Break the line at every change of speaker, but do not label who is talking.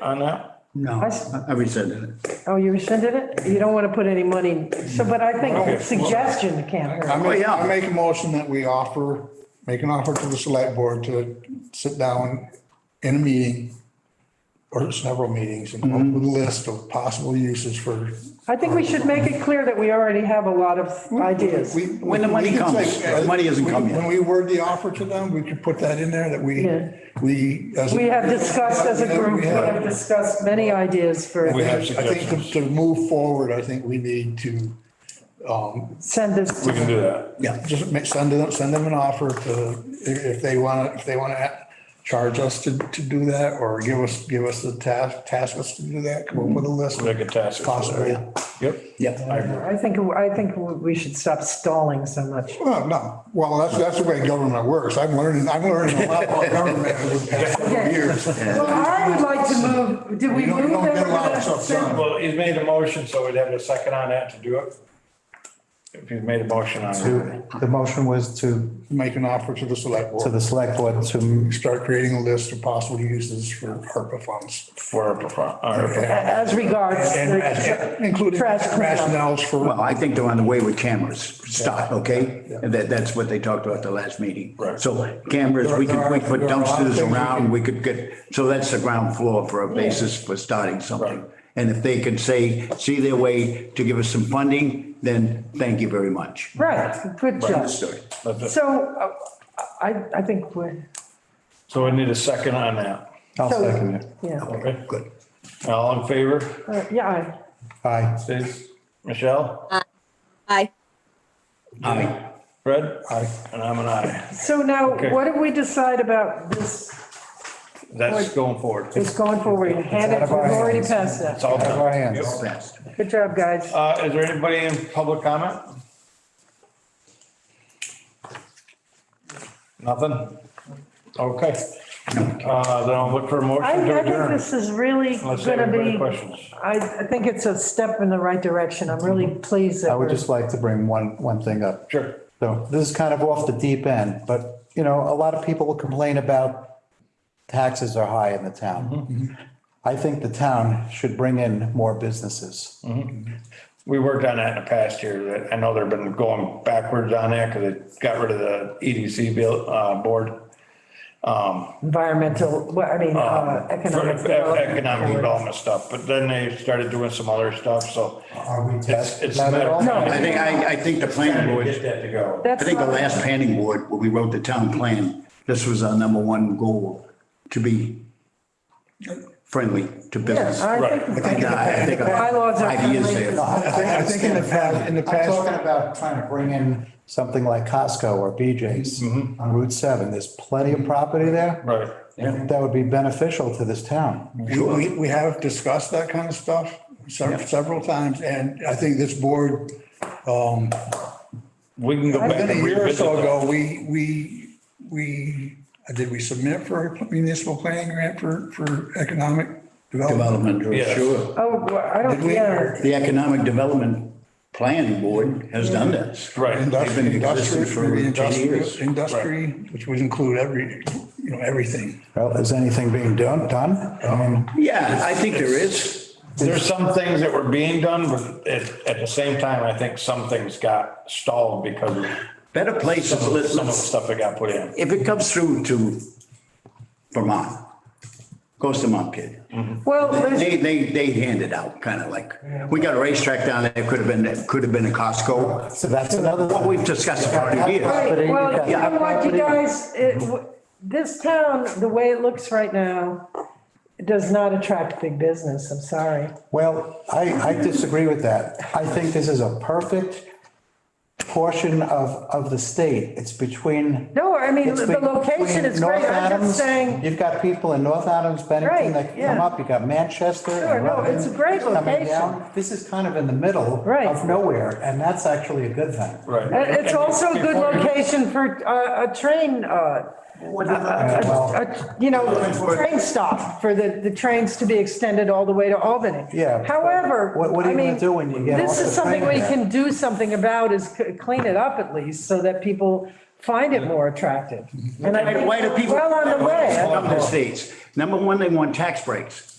on that?
No,
I s-
I rescinded it.
Oh, you rescinded it? You don't want to put any money, so, but I
Okay.
think suggestion can't
I
hurt.
make,
yeah.
I make a motion that we offer, make an offer to the select board to sit down in a meeting or several meetings and come up with a
Mm-hmm.
list of possible uses for.
I think we should make it clear that we already have a lot of ideas.
We-
When the money
we could
comes,
say, uh,
the money hasn't
we-
come yet.
When we word the offer to them, we could put that in there that we,
Yeah.
we. as a-
We have discussed as a group,
We
we
have-
have discussed many ideas
We
for,
have
I think to- to move forward, I think we need to
send this,
We can do that.
Yeah,
just ma- send them, send them an offer to, if if they want to, if they want to charge us to, to do that or give us, give us the task, task us to do that, come up with a list.
Mm-hmm. Make a task.
Possibly.
Yep.
yeah.
I think, I think we should stop stalling so much.
No, no. Well, that's, that's the way government works. I'm learning, I'm learning a lot about government over the past couple years.
Well, I would like to move, did we
You don't- you
move?
don't
that
get a
we're
lot of
gonna
stuff
send-
done.
Well, he's made a motion, so we'd have a second on that to do it. If he's made a motion on it.
The motion was to,
Make an offer to the select
to
board.
the select board to,
Start creating a list of possible uses for ARPA funds.
For, a perfor- or-
As regards.
And
the-
including
Trash cleanup.
rationales for,
Well, I think they're on the way with cameras, stop, okay? And that, that's what they talked about the last meeting.
Right.
So cameras, we could, we put dumpsters around, we could get, so that's the ground floor for a basis for starting something. And if they can say, see their way to give us some funding, then thank you very much.
Right, good job.
Understood.
So uh, I, I think we're,
So we need a second on that.
I'll second it.
yeah,
Okay.
Good.
All in favor?
Uh, yeah, I-
Aye.
Please. Michelle?
Aye.
Aye.
Fred? Aye. And I'm an aye.
So now,
Okay.
what did we decide about this,
That's going forward.
this going forward? You Hand it, we've already passed
It's
that.
all
Out of our
done.
hands.
Fast.
Good job, guys.
Uh, is there anybody in public comment? Nothing? Okay. Uh, then I'll look for a
I,
motion to
I think
adjourn.
this is really
Unless
gonna
everybody has
be,
questions.
I, I think it's a step in the right direction. I'm really pleased
I
that
would
we're.
just like to bring one, one thing up.
Sure.
So this is kind of off the deep end, but you know, a lot of people complain about taxes are high in the town. I think the town should bring in more businesses.
We worked on that in the past year. That I know they've been going backwards on that because they got rid of the EDC bill, uh, board.
Environmental, well, I mean, uh,
for e-,
economic. development.
Economic development stuff, but then they started doing some other stuff, so.
Are we
It's,
taxed?
it's a
Not
matter
at all?
of.
No.
I think, I, I think the planning
Trying
board.
to Get that to go.
I
That's
think the
not-
last planning board, when we wrote the town plan, this was our number one goal, to be friendly to business.
Yeah, I think-
But then I think
Bylaws are
Five years
friendly.
there.
I think, I think in the past, in the
I'm
past.
talking about trying to bring in something like Costco or BJ's
Mm-hmm.
on Route 7. There's plenty of property there.
Right.
And That would be beneficial to this town.
We, we, we have discussed that kind of stuff several, several times, and I think this board,
We can go back
been a
and
year or
revisit
so
that.
ago, we, we, we, did we submit for a municipal planning grant for, for economic development?
Development, or-
Yeah.
sure.
Oh, well, I don't,
Did we-
yeah.
The Economic Development Planning Board has done this.
Right.
They've been
Industri-
existing for
industri-
ten years.
industri- Industry, which would include every, you know, everything.
Well, is anything being done, done? I mean,
Yeah, I think there is.
There's some things that were being done, but at, at the same time, I think some things got stalled because of
Better places, let's,
some of the
let's-
stuff that got put in.
if it comes through to Vermont, goes to Montpelier.
Well, there's,
They, they, they hand it out, kind of like, we got a racetrack down there, could have been, it could have been a Costco.
so that's another.
What we've discussed for years.
Right,
Property,
well, you
yeah.
know what, you guys, it, w- this town, the way it looks right now, does not attract big business, I'm sorry.
Well, I, I disagree with that. I think this is a perfect portion of, of the state. It's between.
No, I mean,
it's
the location
between
is
North
great, I'm
Adams-
just saying,
You've got people in North Adams,
Right,
Bennington that can come
yeah.
up. You've got Manchester. and
Sure, no,
Rutland
it's a great
coming
location.
down. This is kind of in the middle.
Right.
Of nowhere, and that's actually a good thing.
Right.
it- uh, it's also a good
Before-
location for uh, a train, uh,
Well,
a- uh, you know, a train stop for the, the trains to be extended all the way to Albany.
Yeah, but
However.
what- what are
I
you gonna
mean,
do when you get off
This
the
is something
train
we
there?
can do something about is c- clean it up at least so that people find it more attractive. And I
Why do
think
people?
we're well on the way.
Come to the States. Number one, they want tax breaks.